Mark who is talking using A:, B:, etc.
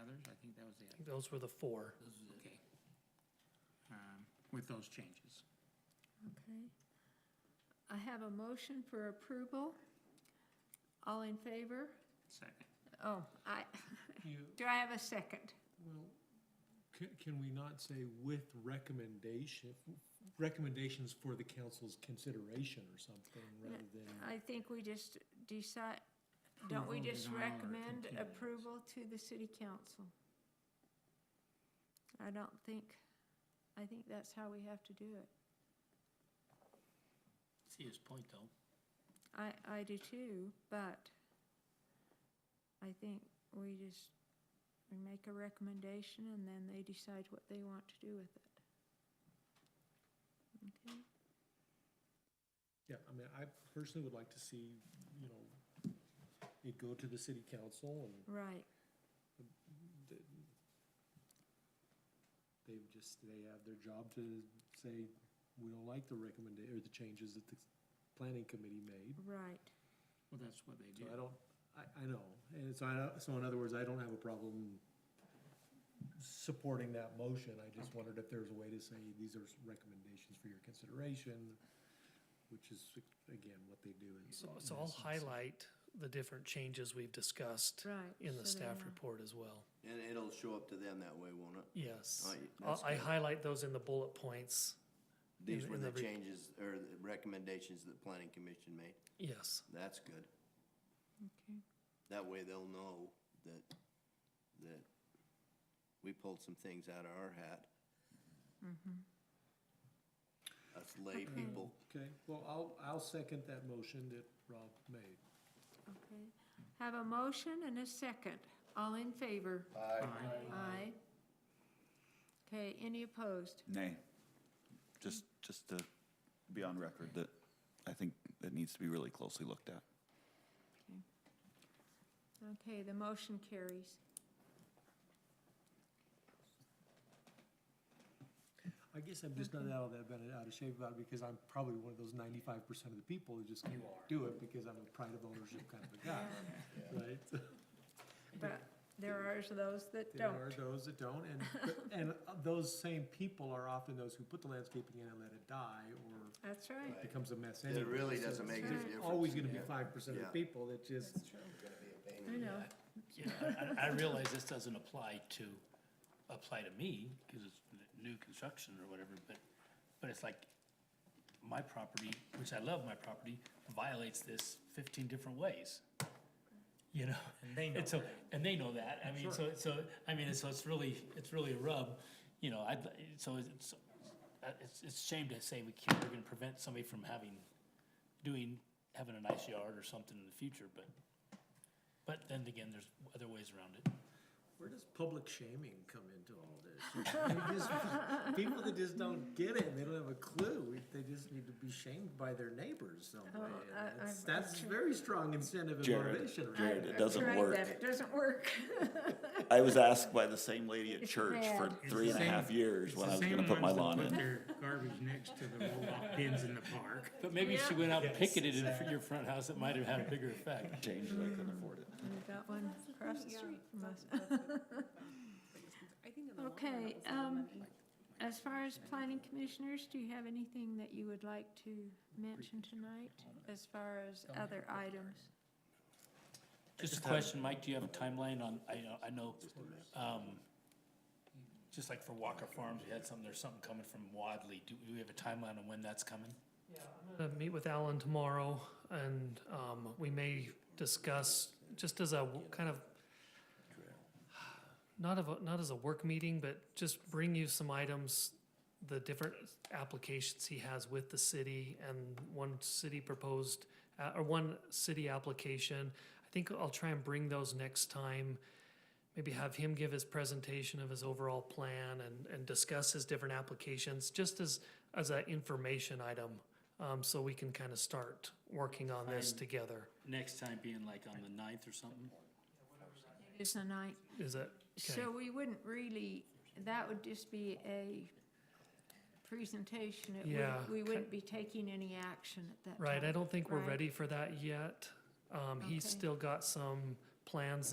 A: others? I think that was it.
B: Those were the four.
A: Okay. Um, With those changes.
C: Okay. I have a motion for approval. All in favor?
A: Second.
C: Oh, I,
D: You,
C: do I have a second?
D: well, can, can we not say with recommendation, recommendations for the council's consideration or something rather than?
C: I think we just decide, don't we
A: Approval,
C: just
A: denial, or
C: recommend
A: continuance.
C: approval to the city council? I don't think, I think that's how we have to do it.
A: See his point, though.
C: I, I do too, but I think we just, we make a recommendation and then they decide what they want to do with it. Okay,
D: Yeah, I mean, I personally would like to see, you know, it go to the city council and
C: right,
D: th- they've just, they have their job to say, we don't like the recommend, or the changes that the planning committee made.
C: right.
A: Well, that's what they
D: So
A: do.
D: I don't, I, I know, and so I, don't- so in other words, I don't have a problem supporting that motion, I just wondered if there's a way to say, these are recommendations for your consideration, which is, again, what they do in.
B: So,
D: in
B: so I'll
D: essence.
B: highlight the different changes we've discussed
C: Right,
B: in the
C: so they
B: staff
C: know.
B: report as well.
E: And it'll show up to them that way, won't it?
B: Yes.
E: Oh, yeah,
B: I'll-
E: that's
B: I
E: good.
B: highlight those in the bullet points.
E: These
B: In-
E: were
B: in
E: the
B: the re-
E: changes or the recommendations that planning commission made.
B: Yes.
E: That's good.
C: Okay.
E: That way they'll know that, that we pulled some things out of our hat. Us lay people.
D: Okay, well, I'll, I'll second that motion that Rob made.
C: Okay, have a motion and a second. All in favor?
A: Aye.
C: Aye. Okay, any opposed?
F: Nay. Just, just to be on record that I think it needs to be really closely looked at.
C: Okay, the motion carries.
D: I guess I'm just not out of that, bit out of shape about it because I'm probably one of those ninety-five percent of the people who just can't do it because I'm a pride of ownership kind of a guy, right?
C: But there are those that
D: There are
C: don't.
D: those that don't, and, but- and uh, those same people are often those who put the landscaping in and let it die, or
C: That's right.
D: it becomes a mess anyway.
E: It really
D: So
E: doesn't make any
C: There's
E: difference.
D: Always gonna be
E: Yeah.
D: five percent of the
E: Yeah.
D: people that just,
C: I know.
G: Yeah, I, I realize this doesn't apply to, apply to me, because it's n- new construction or whatever, but, but it's like, my property, which I love my property, violates this fifteen different ways. You know? And they know that. And they know that, I mean, so, so, I mean, so it's really, it's really a rub, you know, I'd, li- so it's, uh, it's, it's a shame to say we can't, we're gonna prevent somebody from having, doing, having a nice yard or something in the future, but, but then again, there's other ways around it.
D: where does public shaming come into all this? I just- People that just don't get it, and they don't have a clue, they just need to be shamed by their neighbors some way.
C: Oh,
D: and
C: I-
D: that's-
C: I've-
D: That's very strong incentive and
F: Jared,
D: motivation. right
F: Jared,
D: there.
F: it doesn't
C: Tried
F: work.
C: that, It doesn't work.
F: I was asked by the same lady at
C: It's
F: church for
C: bad.
F: three and a half years when I was gonna put my lawn in.
A: Garbage next to the roll-off bins in the park.
G: But maybe if she went out and picketed in fr- your front house, it might have had a bigger effect.
F: Changed, but I couldn't afford it.
C: We've got one across the street from us.
H: I think in the long run,
C: Okay,
H: that was a lot of
C: um,
H: money.
C: as far as planning commissioners, do you have anything that you would like to mention tonight as far as other items?
G: Just a question, Mike, do you have a timeline on, I know, I know, um, just like for Walker Farms, we had something, there's something coming from Wadley. Do do we have a timeline on when that's coming?
B: Uh, meet with Alan tomorrow and, um, we may discuss, just as a w- kind of, not of, a- not as a work meeting, but just bring you some items, the different applications he has with the city and one city proposed, uh, or one city application. I think I'll try and bring those next time. Maybe have him give his presentation of his overall plan and, and discuss his different applications, just as, as an information item. Um, so we can kind of start working on this
G: Fine.
B: together.
G: Next time being like on the ninth or something?
C: Is the night,
B: Is it? okay?
C: so we wouldn't really, that would just be a presentation. It wouldn't-
B: Yeah,
C: We
B: ki-
C: wouldn't be taking any action at that time.
B: Right, I don't think we're
C: Right.
B: ready for that yet. Um, he's
C: Okay.
B: still got some plans